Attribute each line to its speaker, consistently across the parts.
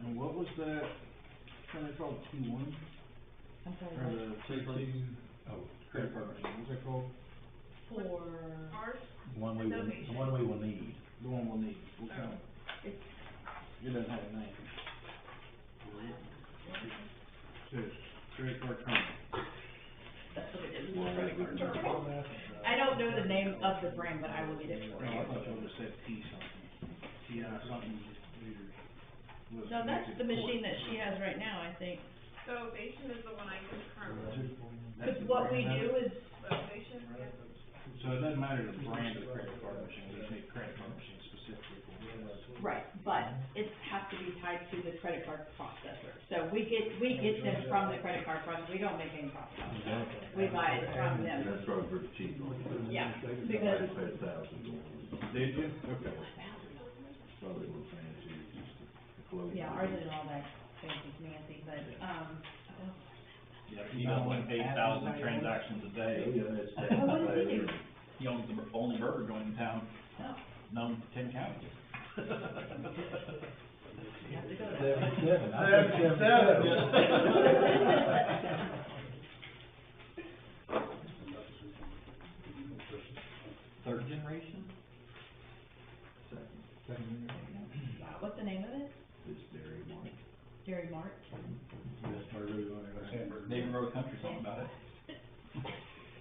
Speaker 1: And what was that, something called T one,
Speaker 2: I'm
Speaker 1: or
Speaker 2: sorry,
Speaker 1: the safety, oh, credit card machine, what's that called?
Speaker 2: for,
Speaker 3: Ours,
Speaker 4: The one we, will- the one we will need.
Speaker 1: The one we'll need, what kind?
Speaker 2: it's,
Speaker 1: It doesn't have a name. Says credit card company.
Speaker 2: that's what it is. I don't know the name of the brand, but I will get it for
Speaker 1: No, Oh, I
Speaker 2: you.
Speaker 1: thought y'all just said T something, T I something. was
Speaker 2: No, that's
Speaker 1: connected
Speaker 2: the
Speaker 1: to
Speaker 2: machine
Speaker 1: court.
Speaker 2: that she has right now, I think.
Speaker 3: so Ovation is the one I use currently.
Speaker 1: That's
Speaker 2: Cause
Speaker 1: the
Speaker 2: what we
Speaker 1: brand of it?
Speaker 2: do is,
Speaker 3: Ovation, yeah.
Speaker 1: So it doesn't matter the brand of the credit card machine, we just need credit card machine specifically for it.
Speaker 2: right, but it has to be tied to the credit card processor. So we get, we get them from the credit card processor, we don't make any profit on them. We buy it
Speaker 5: And
Speaker 2: from them,
Speaker 5: that's probably pretty cheap on it.
Speaker 2: yeah,
Speaker 5: I
Speaker 2: because,
Speaker 5: just paid a thousand.
Speaker 1: Did you? Okay.
Speaker 5: Probably a little fancy, just to close.
Speaker 2: yeah, ours isn't all that fancy fancy, but, um,
Speaker 4: Yeah, you got like eight thousand transactions a
Speaker 5: Yeah,
Speaker 4: day.
Speaker 5: that's.
Speaker 2: Oh, what did you do? Oh.
Speaker 4: You own the only burger joint in town, known to ten counties.
Speaker 2: you have to go there.
Speaker 4: Seven, Third generation?
Speaker 5: Second,
Speaker 2: What's the name of it?
Speaker 5: It's dairy market.
Speaker 2: Dairy Mart?
Speaker 4: Neighbor wrote a country song about it.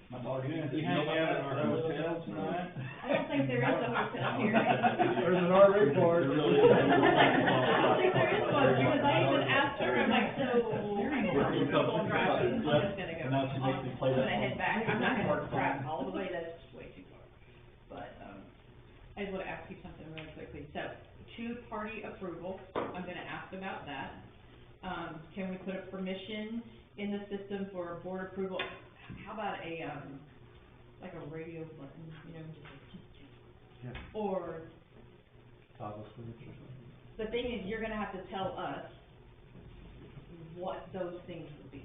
Speaker 4: My daughter.
Speaker 1: Yeah, you hang out at our hotel tonight?
Speaker 2: I don't think there is a hotel here.
Speaker 1: There's an RV park.
Speaker 2: I
Speaker 4: There really is.
Speaker 2: was like, I don't think there is one, because I even asked her, I'm like, so, I don't want to go on drive, I'm just gonna go.
Speaker 4: And now she makes me play that
Speaker 2: I'm gonna head
Speaker 4: song.
Speaker 2: back, I'm not gonna drive all the way, that's just way too far. But, um, I just wanna ask you something really quickly, so, two-party approval, I'm gonna ask about that. Um, can we put a permission in the system for a board approval? How about a, um, like a radio button, you know, just like,
Speaker 1: Yeah.
Speaker 2: or the thing is, you're gonna have to tell us what those things would be,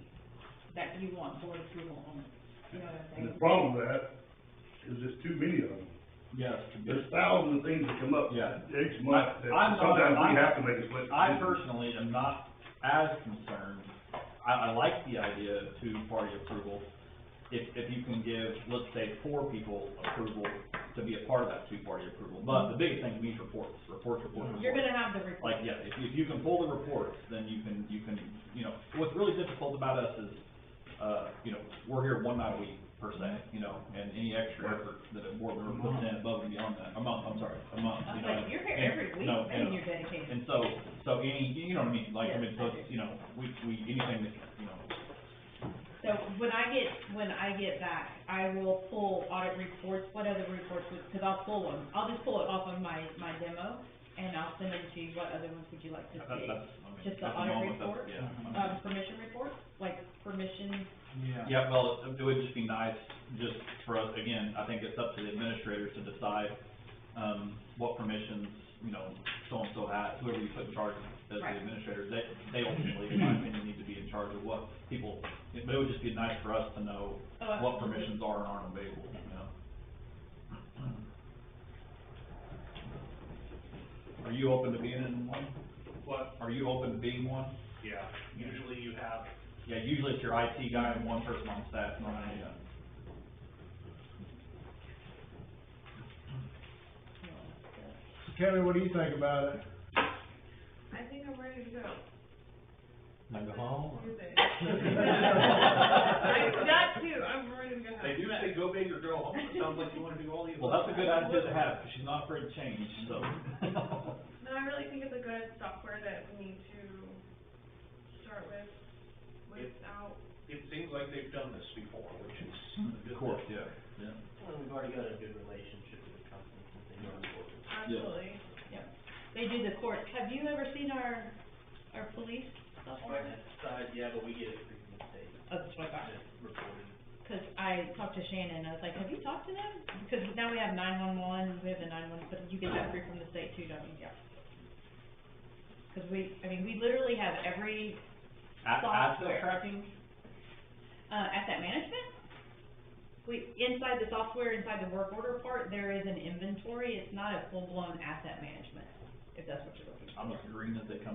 Speaker 2: that you want board approval on, you know what I'm
Speaker 6: And
Speaker 2: saying?
Speaker 6: the problem with that is there's too many of them.
Speaker 4: Yes,
Speaker 6: There's thousands of things that come up
Speaker 4: Yeah.
Speaker 6: each month that
Speaker 4: I'm not-
Speaker 6: sometimes we
Speaker 4: I'm-
Speaker 6: have to make a split.
Speaker 4: I
Speaker 6: decision.
Speaker 4: personally am not as concerned, I, I like the idea of two-party approval. If, if you can give, let's say, four people approval to be a part of that two-party approval, but the biggest thing we need is reports, reports, reports, reports.
Speaker 2: You're gonna have the report,
Speaker 4: Like, yeah, if, if you can pull the reports, then you can, you can, you know, what's really difficult about us is, uh, you know, we're here one night a week per se, you know, and any extra effort that a board member puts in above and beyond that, a month, I'm sorry, a month,
Speaker 2: I
Speaker 4: you
Speaker 2: was
Speaker 4: know.
Speaker 2: like, you're here
Speaker 4: and-
Speaker 2: every week,
Speaker 4: no,
Speaker 2: man,
Speaker 4: and-
Speaker 2: you're dedicated.
Speaker 4: and so, so any, you know what I mean, like, I mean, so, it's, you know, we, we, anything that, you know,
Speaker 2: So when I get, when I get back, I will pull audit reports, what other reports, would cause I'll pull them, I'll just pull it off of my, my demo, and I'll send them to you, what other ones would you like to
Speaker 4: that,
Speaker 2: see?
Speaker 4: that's, I mean,
Speaker 2: Just
Speaker 4: at
Speaker 2: the
Speaker 4: the
Speaker 2: audit
Speaker 4: moment, that's,
Speaker 2: report?
Speaker 4: yeah. I
Speaker 2: Um,
Speaker 4: mean,
Speaker 2: permission reports, like permission,
Speaker 1: Yeah.
Speaker 4: Yeah, well, it it would just be nice, just for us, again, I think it's up to the administrators to decide, um, what permissions, you know, so-and-so has, whoever you put in charge as the
Speaker 2: Right.
Speaker 4: administrators, they, they ultimately, in my opinion, need to be in charge of what people, but it would just be nice for us to know
Speaker 2: Oh, I-
Speaker 4: what permissions are and aren't available, you know? Are you open to being in one?
Speaker 7: What?
Speaker 4: Are you open to being one?
Speaker 7: Yeah, usually you have,
Speaker 4: Yeah, usually it's your IT guy and one person on staff, normally, yeah.
Speaker 1: Kevin, what do you think about it?
Speaker 3: I think I'm ready to go.
Speaker 4: Like a home?
Speaker 3: You're there. I, that too, I'm ready to go.
Speaker 7: they do say go big or go home, it sounds like you wanna do all the above.
Speaker 4: Well, that's a good attitude to have, 'cause she's not afraid to change, so.
Speaker 3: No, I really think it's a good software that we need to start with, without,
Speaker 7: It seems like they've done this before, which is a good
Speaker 4: Mm-hmm. Of course,
Speaker 7: thing.
Speaker 4: yeah, yeah.
Speaker 8: Well, we've already got a good relationship with the company, since they know the work.
Speaker 3: absolutely.
Speaker 2: they do the courts, have you ever seen our, our police software?
Speaker 8: Uh, yeah, but we get it free from the state,
Speaker 2: Oh, that's what I got.
Speaker 8: just reported.
Speaker 2: Cause I talked to Shannon, I was like, have you talked to them? Because now we have nine-one-one, we have the nine-one, but you get that free from the state too, don't you, Jeff? Cause we, I mean, we literally have every,
Speaker 4: At,
Speaker 2: Software.
Speaker 4: asset tracking?
Speaker 2: uh, asset management. We, inside the software, inside the work order part, there is an inventory, it's not a full-blown asset management, if that's what you're looking for.
Speaker 4: I'm agreeing that they come